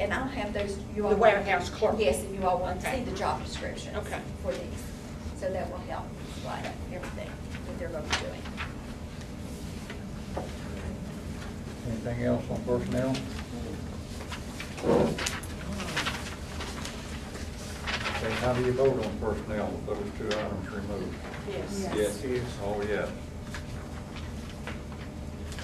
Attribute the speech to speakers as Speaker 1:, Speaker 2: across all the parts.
Speaker 1: and I'll have those, you all.
Speaker 2: The warehouse clerk.
Speaker 1: Yes, if you all want to see
Speaker 2: Okay.
Speaker 1: the job descriptions.
Speaker 2: Okay.
Speaker 1: For these, so that will help light up everything that they're going to be doing.
Speaker 3: Anything else on personnel? Okay, how do you vote on personnel with those two items removed?
Speaker 2: Yes.
Speaker 4: Yes.
Speaker 3: Oh, yes.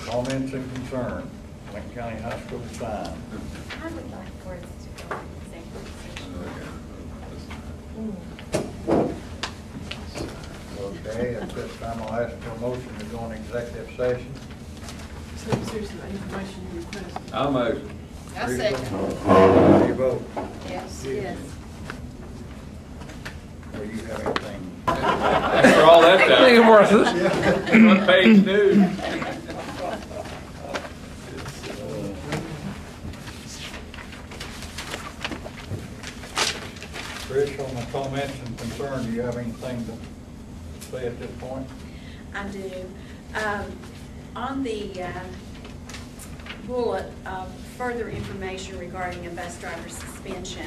Speaker 3: Comments and concern, Lincoln County High School sign.
Speaker 1: I would like for us to go into executive session.
Speaker 3: Okay, at this time, I'll ask for a motion to go in executive session.
Speaker 5: So seriously, information you requested.
Speaker 4: I'll motion.
Speaker 2: I second.
Speaker 3: How do you vote?
Speaker 2: Yes.
Speaker 5: Yes.
Speaker 3: Or you have anything?
Speaker 4: After all that time.
Speaker 6: Ain't worth it.
Speaker 4: What page do?
Speaker 3: Rich, on the comments and concern, do you have anything to say at this point?
Speaker 1: I do. Um, On the uh, bullet of further information regarding a bus driver suspension,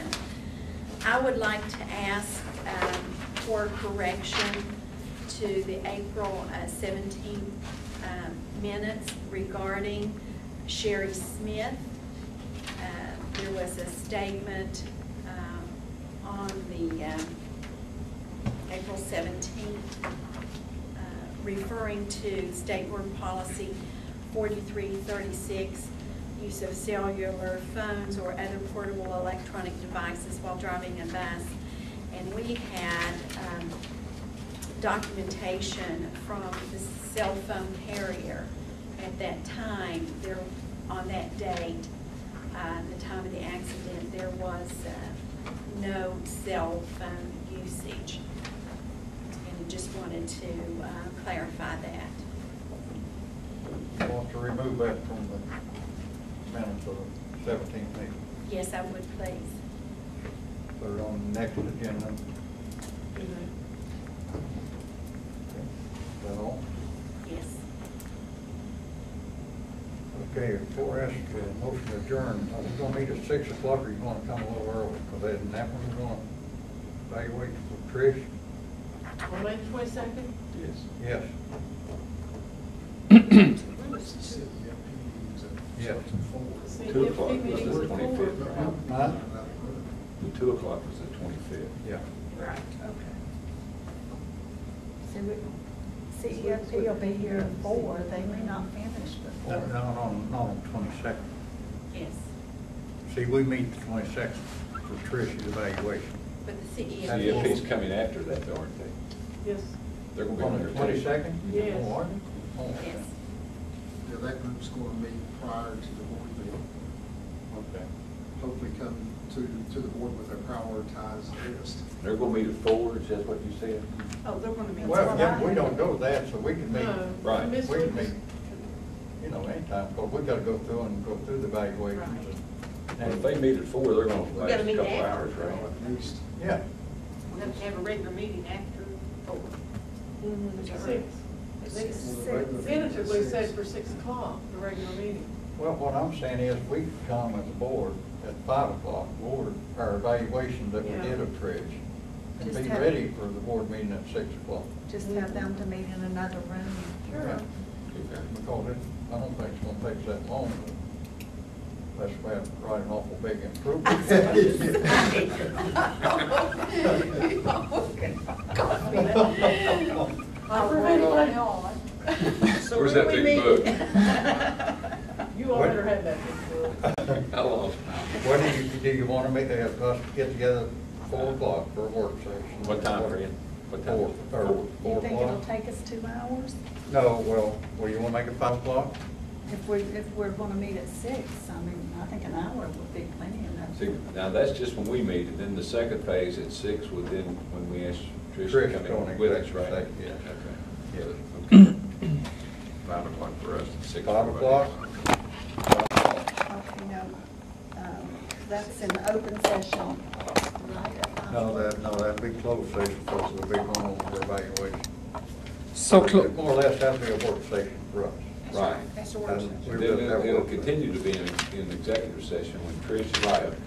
Speaker 1: I would like to ask um, for correction to the April uh, 17 um, minutes regarding Sherry Smith. Uh, There was a statement um, on the um, April 17th uh, referring to state board policy 4336, use of cellular phones or other portable electronic devices while driving a bus. And we had um, documentation from the cell phone carrier at that time, there, on that date, uh, the time of the accident, there was uh, no cell phone usage. And I just wanted to uh, clarify that.
Speaker 3: I Want to remove that from the minutes of the seventeen meeting,
Speaker 1: Yes, I would, please.
Speaker 3: put it on the next agenda. Is that all?
Speaker 1: Yes.
Speaker 3: Okay, before I ask for a motion to adjourn, are we gonna meet at six o'clock or you gonna come a little early? Cause then that one we're gonna evaluate for Trish,
Speaker 5: On May twenty-second?
Speaker 3: yes, yes.
Speaker 4: Two o'clock was the twenty-fifth.
Speaker 3: Huh?
Speaker 4: The two o'clock was the twenty-fifth.
Speaker 3: Yeah.
Speaker 5: Right,
Speaker 7: CEFP will be here at four, they may not finish
Speaker 3: No,
Speaker 7: before.
Speaker 3: no, no, not on the twenty-second.
Speaker 1: Yes.
Speaker 3: See, we meet the twenty-second for Trish's evaluation.
Speaker 1: But the
Speaker 4: CFP's
Speaker 1: CEO.
Speaker 4: coming after that, though, aren't they?
Speaker 5: yes.
Speaker 4: They're gonna be on
Speaker 3: On
Speaker 4: their.
Speaker 3: the twenty-second?
Speaker 5: Yes.
Speaker 1: Yes.
Speaker 8: Yeah, that group's going to meet prior to the board meeting.
Speaker 3: Okay.
Speaker 8: Hopefully come to, to the board with a prioritized list.
Speaker 4: They're gonna meet at four, is that what you said?
Speaker 5: Oh, they're gonna be.
Speaker 3: Well, yeah, we don't go to that, so we can meet,
Speaker 5: No.
Speaker 4: Right.
Speaker 5: Miss-
Speaker 3: we can meet, you know, anytime, but we gotta go through and go through the evaluations.
Speaker 4: And if they meet at four, they're gonna
Speaker 5: gotta
Speaker 4: last a
Speaker 5: meet
Speaker 4: couple
Speaker 5: after.
Speaker 4: hours, right?
Speaker 8: At least.
Speaker 3: Yeah,
Speaker 5: We have to have a regular meeting after four. Six. Tentatively said for six o'clock, the regular meeting.
Speaker 3: well, what I'm saying is, we can come as a board at five o'clock, board, our evaluation that we
Speaker 5: Yeah.
Speaker 3: did of Trish, and
Speaker 7: Just
Speaker 3: be
Speaker 7: have-
Speaker 3: ready for the board meeting at six o'clock.
Speaker 7: Just have them to meet in another room.
Speaker 3: Because it, I don't think it's gonna take that long, but that's why I'm writing an awful big improvement.
Speaker 5: So
Speaker 4: Where's
Speaker 5: where
Speaker 4: that
Speaker 5: do we
Speaker 4: big
Speaker 5: meet? You all
Speaker 3: What?
Speaker 5: better have that big book.
Speaker 4: I lost.
Speaker 3: What do you, do you want to meet, have us get together at four o'clock for a work session?
Speaker 4: What time, Fred? What time?
Speaker 3: Four, or
Speaker 7: You
Speaker 3: four
Speaker 7: think it'll
Speaker 3: o'clock?
Speaker 7: take us two hours?
Speaker 3: No, well, well, you want to make it five o'clock?
Speaker 7: If we, if we're gonna meet at six, I mean, I think an hour would be plenty enough.
Speaker 4: See, now that's just when we meet, and then the second phase at six would then, when we ask Trish
Speaker 3: Trish,
Speaker 4: to come
Speaker 3: Tony,
Speaker 4: in with us,
Speaker 3: Trish,
Speaker 4: right?
Speaker 3: say, yeah.
Speaker 4: Yeah,
Speaker 3: Yeah.
Speaker 4: okay. Five o'clock for us, and six. for
Speaker 3: Five
Speaker 4: everybody
Speaker 3: o'clock?
Speaker 4: else.
Speaker 7: Okay, now, um, that's an open session. right?
Speaker 3: No, that, no, that'd be closed session, because it'll be going over evaluation.
Speaker 6: So, clo-
Speaker 3: More or less, that'd be a work session for us.
Speaker 4: Right.
Speaker 3: And we
Speaker 4: Then
Speaker 3: would have
Speaker 4: It'll
Speaker 3: work
Speaker 4: it'll
Speaker 3: session.
Speaker 4: continue to be in, in executive session when Trish is up.